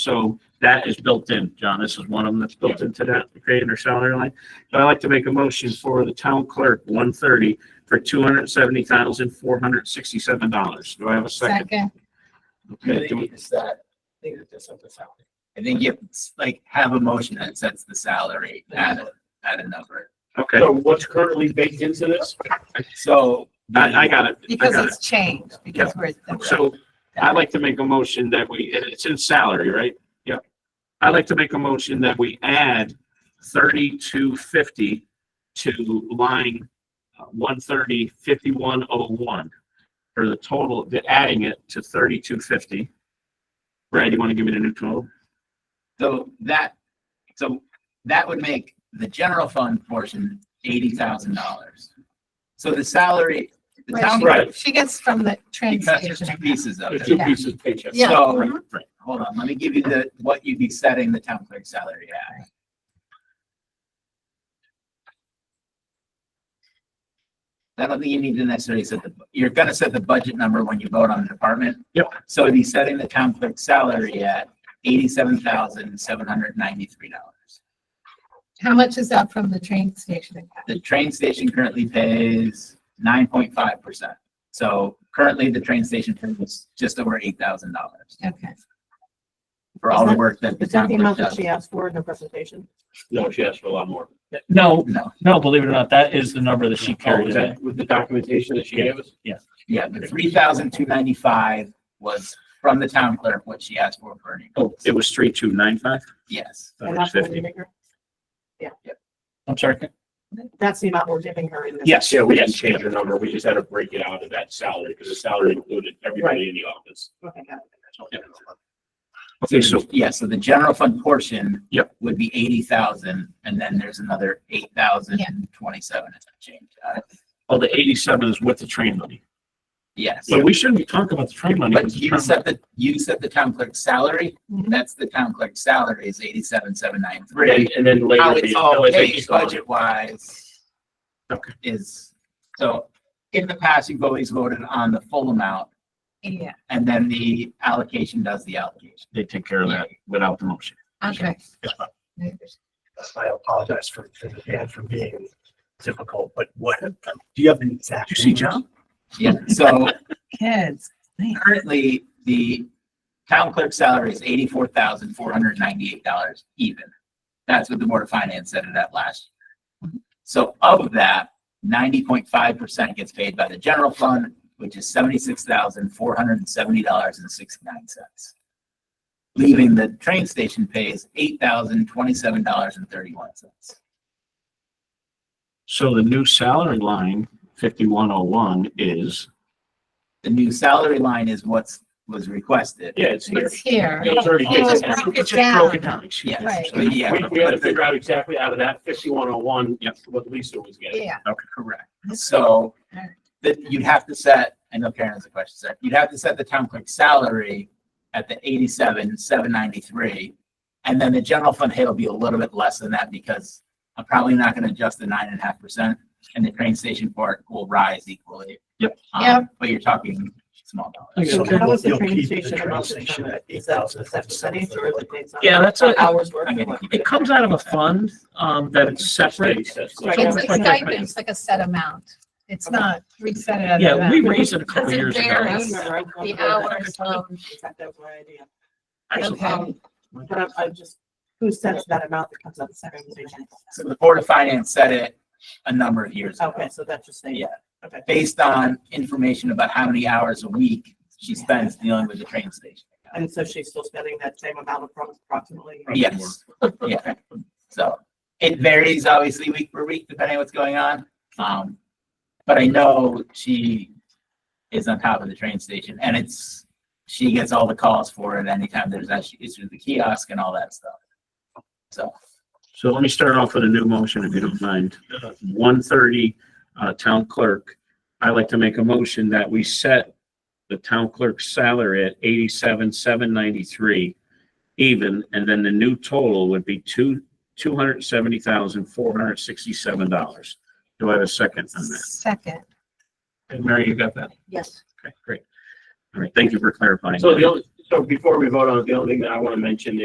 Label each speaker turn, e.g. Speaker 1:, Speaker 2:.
Speaker 1: So that is built in, John. This is one of them that's built into that, creating our salary line. So I'd like to make a motion for the town clerk, one thirty, for two hundred seventy thousand, four hundred sixty-seven dollars. Do I have a second?
Speaker 2: Second,
Speaker 1: Okay, do we-
Speaker 3: It's that, I think that that's not the salary. I think you like have a motion that sets the salary at a, at a number.
Speaker 1: Okay,
Speaker 4: So what's currently baked into this?
Speaker 3: So.
Speaker 1: I, I got it. I
Speaker 2: because
Speaker 1: got it.
Speaker 2: it's changed, because we're.
Speaker 1: So I'd like to make a motion that we, and it's in salary, right? Yep. I'd like to make a motion that we add thirty-two fifty to line uh, one thirty fifty-one oh one. For the total, the adding it to thirty-two fifty. Brad, you want to give me the new total?
Speaker 3: So that, so that would make the general fund portion eighty thousand dollars. So the salary, the
Speaker 2: Right,
Speaker 3: town.
Speaker 2: she-
Speaker 4: Right.
Speaker 2: She gets from the train
Speaker 3: Because there's
Speaker 2: station.
Speaker 3: two pieces of
Speaker 4: There's two
Speaker 3: it.
Speaker 4: pieces of paychecks.
Speaker 2: Yeah.
Speaker 3: So-
Speaker 2: mhm.
Speaker 1: Right.
Speaker 3: Hold on, let me give you the, what you'd be setting the town clerk salary at. I don't think you need to necessarily set the, you're gonna set the budget number when you vote on the department.
Speaker 1: Yep.
Speaker 3: So it'd be setting the town clerk salary at eighty-seven thousand, seven hundred ninety-three dollars.
Speaker 2: How much is that from the train station?
Speaker 3: The train station currently pays nine point five percent. So currently, the train station pays just over eight thousand dollars
Speaker 2: Okay.
Speaker 3: for all the work that the
Speaker 5: Is that
Speaker 3: town
Speaker 5: the
Speaker 3: clerk
Speaker 5: amount that
Speaker 3: does.
Speaker 5: she asked for in her presentation?
Speaker 4: No, she asked for a lot more.
Speaker 6: No,
Speaker 3: No,
Speaker 6: no, believe it or not, that is the number that she
Speaker 4: Oh,
Speaker 6: carried.
Speaker 4: is
Speaker 6: today.
Speaker 4: that with the documentation that she gave us?
Speaker 3: Yeah, the three thousand two ninety-five was from the town clerk, what she asked for for an
Speaker 1: Oh, it was three two nine five?
Speaker 3: Yes,
Speaker 1: Uh,
Speaker 5: And that's what we're giving her?
Speaker 6: I'm sorry.
Speaker 5: That's the amount we're giving her in this.
Speaker 1: Yes,
Speaker 4: Yeah, we didn't
Speaker 1: yes,
Speaker 4: change the number. We just had to break it out of that salary because the salary included everybody in the office.
Speaker 5: Okay, got it.
Speaker 1: Okay, so
Speaker 3: yeah, so the general fund portion.
Speaker 1: Yep.
Speaker 3: Would be eighty thousand, and then there's another eight thousand and twenty-seven and some change. Uh,
Speaker 1: all the eighty-seven is with the train money.
Speaker 3: Yes,
Speaker 1: But we shouldn't be talking about the train money.
Speaker 3: but
Speaker 1: because the
Speaker 3: you
Speaker 1: train
Speaker 3: set the, you set the town clerk's salary,
Speaker 2: Mhm.
Speaker 3: that's the town clerk's salary is eighty-seven, seven nine three.
Speaker 4: And and then later.
Speaker 3: How
Speaker 4: the-
Speaker 3: it's all
Speaker 4: no, it's
Speaker 3: paid
Speaker 4: based on-
Speaker 3: budget wise.
Speaker 1: Okay.
Speaker 3: Is, so in the past, you've always voted on the full amount,
Speaker 2: Yeah,
Speaker 3: and then the allocation does the allocation.
Speaker 1: They take care of that without the motion.
Speaker 2: okay.
Speaker 7: I apologize for, for the fan for being difficult, but what, do you have an exact?
Speaker 1: Did you see John?
Speaker 3: Yeah, so
Speaker 2: Kids. man.
Speaker 3: currently, the town clerk salary is eighty-four thousand, four hundred ninety-eight dollars even. That's what the Board of Finance set it at last. year. So of that, ninety point five percent gets paid by the general fund, which is seventy-six thousand, four hundred and seventy dollars and sixty-nine cents. Leaving the train station pays eight thousand, twenty-seven dollars and thirty-one cents.
Speaker 1: So the new salary line, fifty-one oh one, is,
Speaker 3: The new salary line is what's, was requested.
Speaker 4: Yeah, it's there.
Speaker 2: It's here.
Speaker 4: It's already-
Speaker 2: It was broken
Speaker 1: it's just broken
Speaker 2: down.
Speaker 1: down. excuse me.
Speaker 3: Yes,
Speaker 2: Right.
Speaker 3: but yeah,
Speaker 1: We-
Speaker 4: We, we had to figure out exactly out of that fifty-one oh one, what Lisa was getting.
Speaker 2: Yeah,
Speaker 3: Correct. So that you'd have to set, I know Karen has a question, set, you'd have to set the town clerk's salary at the eighty-seven, seven ninety-three. And then the general fund hit will be a little bit less than that because I'm probably not gonna adjust the nine and a half percent and the train station part will rise equally.
Speaker 1: Yep.
Speaker 3: Um,
Speaker 2: Yep.
Speaker 3: But you're talking small dollars.
Speaker 7: So
Speaker 5: How was the
Speaker 7: you'll
Speaker 5: train
Speaker 7: keep
Speaker 5: station
Speaker 7: train
Speaker 5: amount
Speaker 7: station
Speaker 5: determined?
Speaker 7: at
Speaker 5: Is that, is that percentage or is it based on?
Speaker 6: Yeah, that's a,
Speaker 5: Hours worth?
Speaker 3: I'm gonna
Speaker 5: or
Speaker 3: keep
Speaker 6: it comes out of a fund, um, that it's separate.
Speaker 2: it's a
Speaker 6: Right.
Speaker 2: stipend, it's like a set amount. It's not, we set it at. an
Speaker 6: Yeah,
Speaker 2: amount.
Speaker 6: we raised it a couple
Speaker 2: Doesn't
Speaker 6: years
Speaker 2: vary.
Speaker 6: ago.
Speaker 5: I remember, I
Speaker 2: The
Speaker 5: remember
Speaker 2: hours,
Speaker 5: that.
Speaker 2: um,
Speaker 5: That was my idea.
Speaker 1: Actually,
Speaker 2: Okay.
Speaker 5: Um, But I'm, I'm just, who sets that amount that comes out of the second station?
Speaker 3: So the Board of Finance set it a number of years ago.
Speaker 5: Okay, so that's just saying.
Speaker 3: Yeah.
Speaker 5: Okay.
Speaker 3: Based on information about how many hours a week she spends dealing with the train station.
Speaker 5: And so she's still spending that same amount appro- approximately?
Speaker 3: Yes, yeah. So it varies obviously week per week depending on what's going on. Um, but I know she is on top of the train station and it's, she gets all the calls for it anytime there's actually issues with the kiosk and all that stuff. So,
Speaker 1: So let me start off with a new motion, if you don't mind. One thirty, uh, town clerk. I'd like to make a motion that we set the town clerk's salary at eighty-seven, seven ninety-three even, and then the new total would be two, two hundred seventy thousand, four hundred sixty-seven dollars. Do I have a second on that?
Speaker 2: Second,
Speaker 1: Mary, you got that?
Speaker 2: yes.
Speaker 1: Okay, great. All right, thank you for clarifying.
Speaker 4: So the only,
Speaker 1: So before we vote on it, the only thing that I want to mention